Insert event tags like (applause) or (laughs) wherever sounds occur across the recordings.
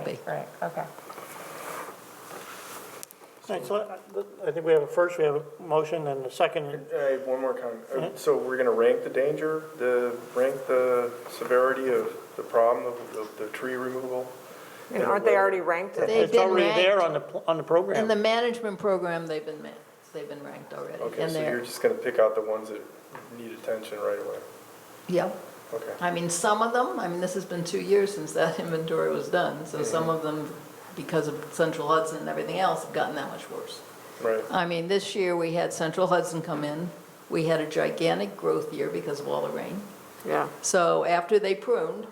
Right, right, okay. All right, so I- I think we have a first, we have a motion and a second. Uh, I have one more comment. Uh, So we're gonna rank the danger, the, rank the severity of the problem of, of the tree removal? And aren't they already ranked? They've It's been already there ranked. on the, pl- on In the the program. management program, they've been, ma- they've been ranked already. Okay, and so they're- you're just gonna pick out the ones that need attention right away? Yep. Okay. I mean, some of them, I mean, this has been two years since that (laughs) inventory was done, so some of them, because of Central Hudson and everything else, have gotten that much worse. Right, I mean, this year, we had Central Hudson come in. We had a gigantic growth year because of all the rain. Yeah, So after they pruned,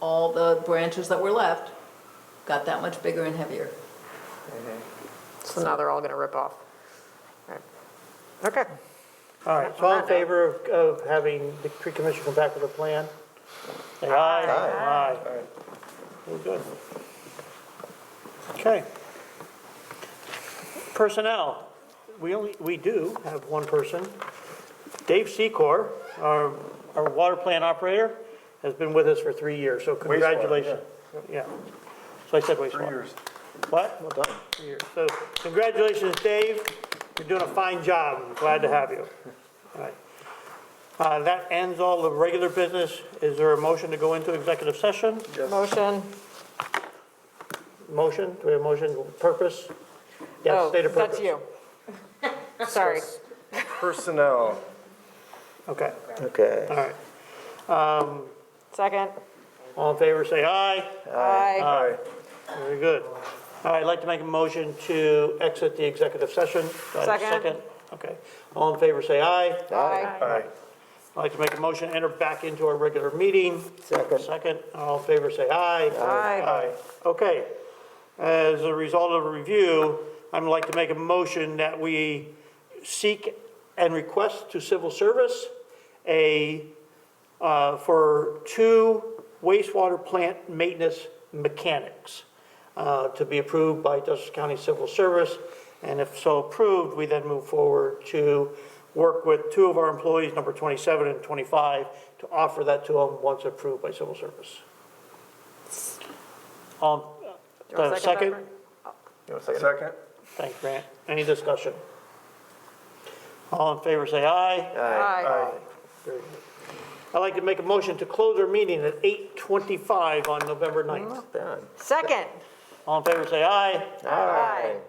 all the branches that were left got that much bigger and heavier. Mm-hmm. so now they're all gonna rip off. Right. Okay, All right, so all in favor of, of having the tree commission come back with a plan? Say aye. all right. We're good. Okay. Personnel, we only, we do have one person. Dave Secor, our, our water plant operator, has been with us for three years, so congratulations. Yeah. So I said wastewater. Three years. What? Well done. Three years. So congratulations, Dave. You're doing a fine job. I'm Glad to have you. All right. Uh, that ends all the regular business. Is there a motion to go into executive session? motion. Motion, do we have a motion, purpose? Yes, Oh, state of purpose. That's you. Sorry. Personnel, Okay, Okay. all right. Second. All in favor, say aye. Aye. aye. Very good. All right, I'd like to make a motion to exit the executive session. Do I have a Second. Okay. All in favor, say aye. Aye. Aye. I'd like to make a motion, to enter back into our regular meeting. Second. Second, all in favor, say aye. Aye. Okay. As a result of a review, I'd like to make a motion that we seek and request to civil service a, uh, for two wastewater plant maintenance mechanics uh, to be approved by Dutchess County Civil Service. And if so approved, we then move forward to work with two of our employees, number 27 and 25, to offer that to them once approved by civil service. Um, Do you want a uh, second, second? Pepper? Second? Thanks, Grant. Any discussion? All in favor, say aye. Aye. Very good. I'd like to make a motion to close our meeting at 8:25 on November 9th. Done. Second. All in favor, say aye. Aye.